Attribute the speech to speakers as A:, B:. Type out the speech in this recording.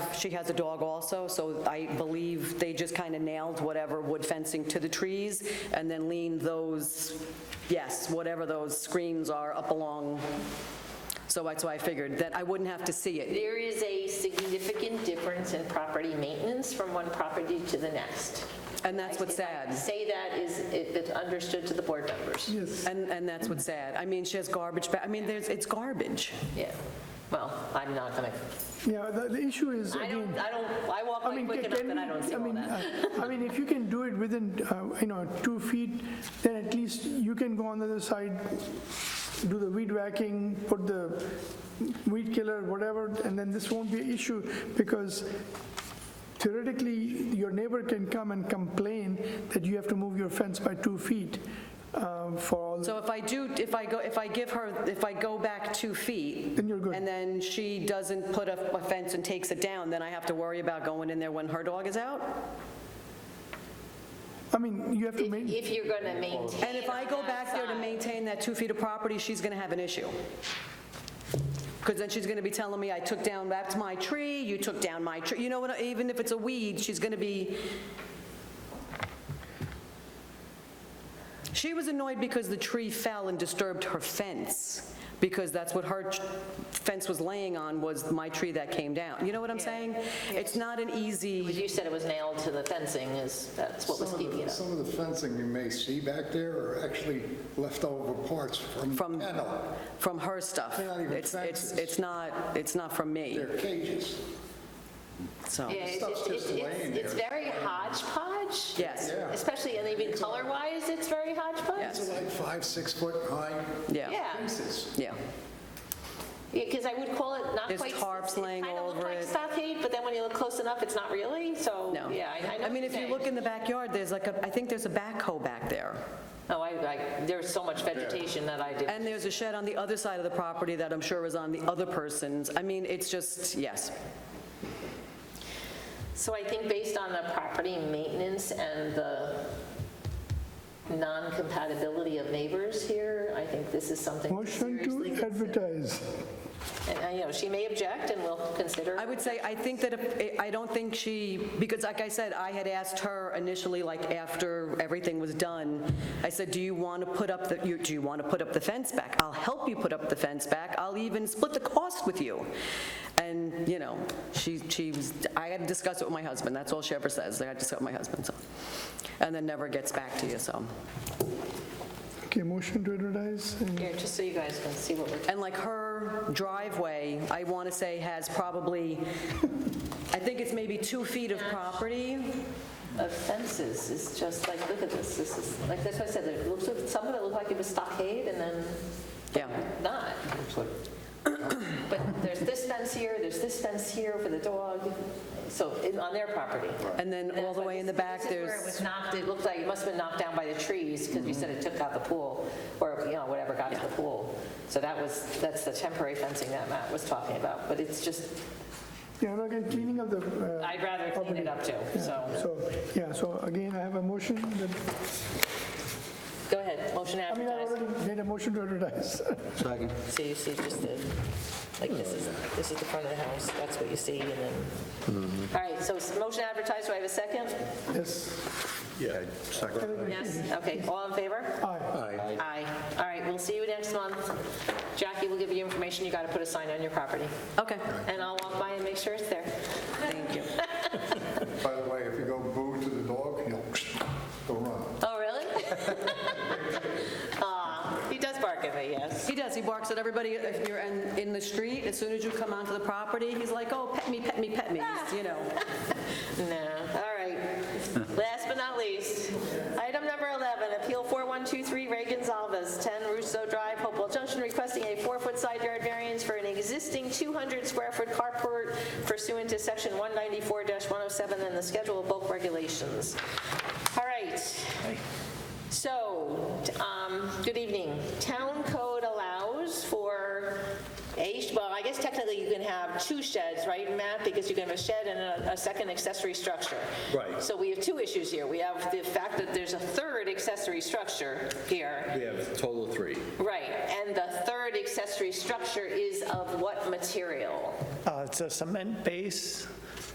A: she has a dog also, so I believe they just kind of nailed whatever wood fencing to the trees and then leaned those, yes, whatever those screens are up along. So that's why I figured that I wouldn't have to see it.
B: There is a significant difference in property maintenance from one property to the next.
A: And that's what's sad.
B: Say that is, if it's understood to the board members.
A: And, and that's what's sad. I mean, she has garbage, ba- I mean, there's, it's garbage.
B: Yeah. Well, I'm not gonna,
C: Yeah, the, the issue is,
B: I
C: again,
B: don't, I don't, I walk
C: I
B: by
C: mean,
B: quick
C: can,
B: enough that I don't see
C: I
B: all
C: mean,
B: that.
C: uh, I mean, if you can do it within, uh, you know, two feet, then at least you can go on the other side, do the weed whacking, put the weed killer, whatever, and then this won't be an issue, because theoretically, your neighbor can come and complain that you have to move your fence by two feet uh, for all,
A: So if I do, if I go, if I give her, if I go back two feet.
C: Then you're good.
A: And then she doesn't put up a fence and takes it down, then I have to worry about going in there when her dog is out?
C: I mean, you have to make,
B: If you're gonna maintain.
A: And if I go back there to maintain that two feet of property, she's going to have an issue. Because then she's going to be telling me, I took down, that's my tree, you took down my tree. You know what, even if it's a weed, she's going to be... She was annoyed because the tree fell and disturbed her fence, because that's what her ch- fence was laying on, was my tree that came down. You know what I'm saying? It's not an easy,
B: You said it was nailed to the fencing is, that's what was
D: Some of the-
B: keeping it up.
D: Some of the fencing you may see back there are actually leftover parts from
A: From-
D: kennel.
A: from her stuff.
D: They're not even
A: It's- it's-
D: fences.
A: It's not, it's not from me,
D: They're cages.
A: so...
B: Yeah, it's-
D: stuff's
B: it's-
D: just
B: it's-
D: laying
B: It's
D: there.
B: very hodgepodge.
A: Yes. Yeah.
B: Especially, and even color-wise, it's very hodgepodge.
A: Yes.
D: They're like five, six foot high
A: Yeah,
B: Yeah,
D: cases.
A: yeah.
B: because I would call it not
A: There's
B: quite.
A: tarps laying
B: It kind of
A: over
B: looked like
A: it.
B: stockade, but then when you look close enough, it's not really, so,
A: No.
B: yeah, I- I know.
A: I mean,
B: what
A: if you
B: you're
A: look
B: saying.
A: in the backyard, there's like, a I think there's a backhoe back there.
B: Oh, I, I- there's so much vegetation that I did.
A: And there's a shed on the other side of the property that I'm sure is on the other person's. I mean, it's just, yes.
B: So I think based on the property maintenance and the non-compatibility of neighbors here, I think this is something to
C: motion to
B: seriously consider.
C: advertise.
B: And, uh, you know, she may object and we'll consider.
A: I would say, I think that, if- I don't think she, because like I said, I had asked her initially, like after everything was done, I said, do you want to put up, the? you- do you want to put up the fence back? I'll help you put up the fence back, I'll even split the cost with you. And, you know, she, she, was- I had to discuss it with my husband, that's all she ever says, I had to discuss it with my husband, so. And then never gets back to you, so.
C: Okay, motion to advertise, and
B: Here, just so you guys can see what we're
A: And like her driveway, I want to say has probably, I think it's maybe two feet of property.
B: of fences is just like, look at this, this is, like, that's what I said, it looks, like- some of it looked like it was stockade and then
A: Yeah.
B: not. But there's this fence here, there's this fence here for the dog, so, it- on their property.
A: And then all the way in the back,
B: This is where it was
A: there's, Mm-hmm.
B: knocked, it looked like it must have been knocked down by the trees, because you said it took out the pool, or, you know, whatever got to the pool. So that was, that's the temporary fencing that Matt was talking about, but it's just,
C: Yeah, no, again, cleaning up the. uh,
B: I'd rather clean it up too, so.
C: So, yeah, so again, I have a motion that,
B: Go ahead, motion
C: I mean, I
B: advertised.
C: already made a motion to advertise.
B: So you see just the, like, this is, this is the front of the house, that's what you see, and then...
A: Mm-hmm.
B: All right, so s- motion advertised, do I have a second?
C: Yes,
E: Yeah, second.
B: Yes. Okay, all in favor?
C: aye.
E: Aye.
B: Aye. All right, we'll see you next month. Jackie will give you information, you got to put a sign on your property,
A: okay,
B: and I'll walk by and make sure it's there.
A: thank you.
D: By the way, if you go boo to the dog, he'll go run.
B: Oh, really? Aw, he does bark at me, yes.
A: He does, he barks at everybody, if you're in, in the street, as soon as you come onto the property, he's like, oh, pet me, pet me, pet me, He's, you know.
B: No, all right. Last but not least, item number 11, Appeal 4123 Ray Gonzalez, 10 Russo Drive, Hopewell Junction, requesting a four-foot side yard variance for an existing 200-square-foot carport pursuant to Section 194-107 and the Schedule of Bulk Regulations. All right. So, um, good evening. Town code allows for a, well, I guess technically you can have two sheds, right, Matt? Because you can have a shed and a, a second accessory structure.
E: Right.
B: So we have two issues here. We have the fact that there's a third accessory structure here.
E: We have total three.
B: Right, and the third accessory structure is of what material?
F: Uh, It's a cement base